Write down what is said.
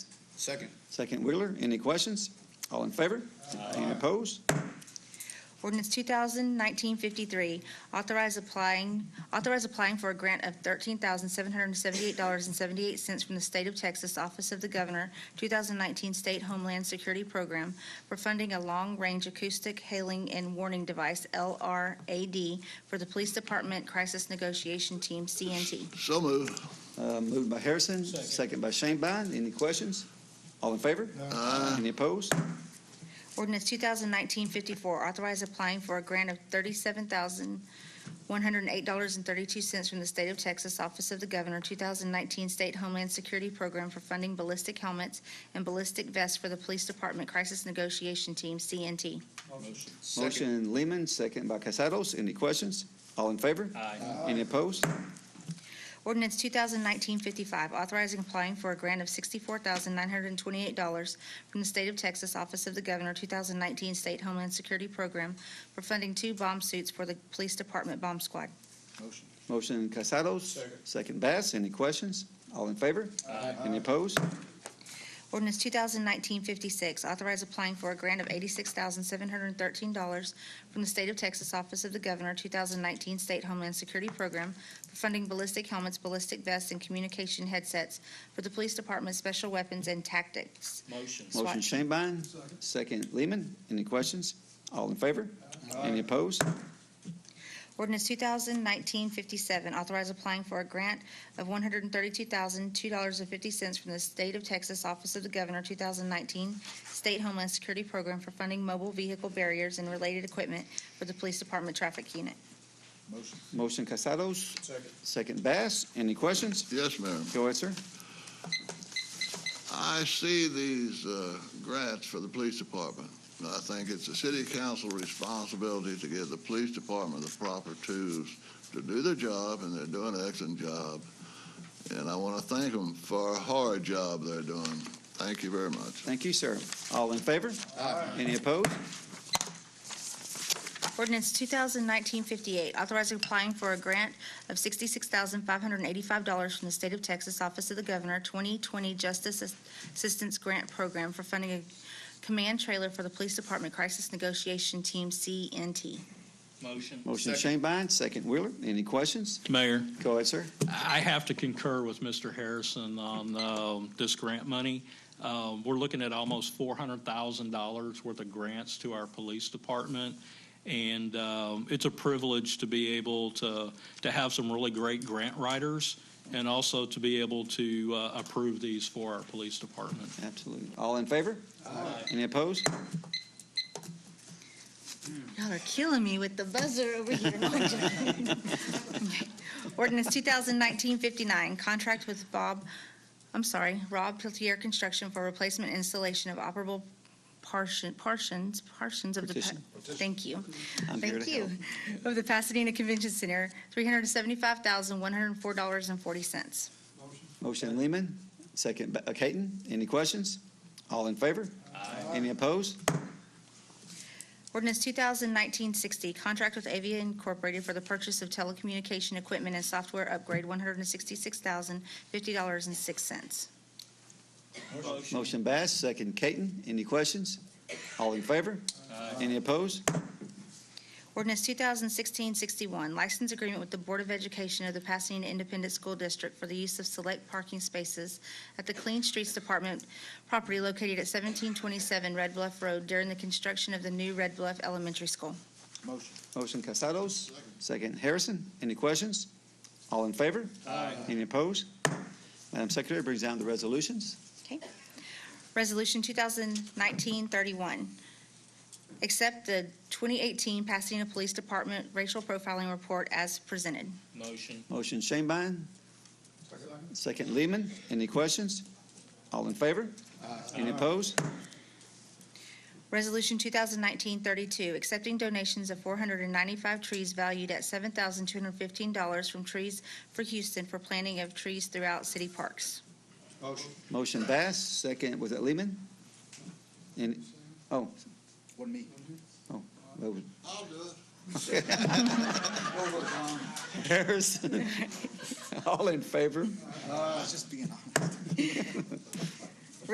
Second. Second Wheeler, any questions? All in favor? Any opposed? Ordinance 2019-53, authorize applying, authorize applying for a grant of $13,778.78 from the State of Texas Office of the Governor, 2019 State Homeland Security Program for funding a long-range acoustic hailing and warning device, LRAD, for the Police Department Crisis Negotiation Team, CNT. So move. Uh, Moved by Harrison, second by Shane Bind. Any questions? All in favor? Any opposed? Ordinance 2019-54, authorize applying for a grant of $37,108.32 from the State of Texas Office of the Governor, 2019 State Homeland Security Program for funding ballistic helmets and ballistic vests for the Police Department Crisis Negotiation Team, CNT. Motion. Second. Motion Lehman, second by Casados. Any questions? All in favor? Aye. Any opposed? Ordinance 2019-55, authorizing applying for a grant of $64,928 from the State of Texas Office of the Governor, 2019 State Homeland Security Program for funding two bomb suits for the Police Department Bomb Squad. Motion. Motion Casados, Second. second Bass. Any questions? All in favor? Any opposed? Ordinance 2019-56, authorize applying for a grant of $86,713 from the State of Texas Office of the Governor, 2019 State Homeland Security Program for funding ballistic helmets, ballistic vests, and communication headsets for the Police Department Special Weapons and Tactics. Motion. Motion Swatch. Shane Bind, second Lehman. Any questions? All in favor? Any opposed? Ordinance 2019-57, authorize applying for a grant of $132,002.50 from the State of Texas Office of the Governor, 2019 State Homeland Security Program for funding mobile vehicle barriers and related equipment for the Police Department Traffic Unit. Motion. Motion Casados, Second. second Bass. Any questions? Yes, ma'am. Go ahead, sir. I see these uh, grants for the police department. And I think it's the city council responsibility to give the police department the proper tools to do their job, and they're doing an excellent job. And I want to thank them for a hard job they're doing. Thank you very much. Thank you, sir. All in favor? Any opposed? Ordinance 2019-58, authorizing applying for a grant of $66,585 from the State of Texas Office of the Governor 2020 Justice Ass- Assistance Grant Program for funding a command trailer for the Police Department Crisis Negotiation Team, CNT. Motion. Motion Second. Shane Bind, second Wheeler. Any questions? Mayor, Go ahead, sir. I have to concur with Mr. Harrison on um, this grant money. Um, We're looking at almost $400,000 worth of grants to our police department, and um, it's a privilege to be able to, to have some really great grant writers, and also to be able to uh, approve these for our police department. Absolutely. All in favor? Any opposed? Y'all are killing me with the buzzer over here. No, I'm joking. Ordinance 2019-59, contract with Bob, I'm sorry, Rob Peltier Construction for replacement installation of operable partition, partitions, partitions of the. pa- Partition. Thank you. I'm here Thank to you. help. Of the Pasadena Convention Center, $375,104.40. Motion Lehman, second Ba- uh, Caton. Any questions? All in favor? Any opposed? Ordinance 2019-60, contract with Avia Incorporated for the purchase of telecommunication equipment and software upgrade, $166,050.06. Motion Bass, second Caton. Any questions? All in favor? Any opposed? Ordinance 2016-61, license agreement with the Board of Education of the Pasadena Independent School District for the use of select parking spaces at the Clean Streets Department property located at 1727 Red Bluff Road during the construction of the new Red Bluff Elementary School. Motion. Motion Casados, second Harrison. Any questions? All in favor? Any opposed? Madam Secretary brings down the resolutions. Okay. Resolution 2019-31, accept the 2018 Pasadena Police Department Racial Profiling Report as presented. Motion. Motion Shanebine, second Lehman. Any questions? All in favor? Any opposed? Resolution 2019-32, accepting donations of 495 trees valued at $7,215 from Trees for Houston for planting of trees throughout city parks. Motion. Motion Bass, second, was it Lehman? And, oh, One me. that was I'll do it. Harrison. All in favor? Uh, I was just being honest.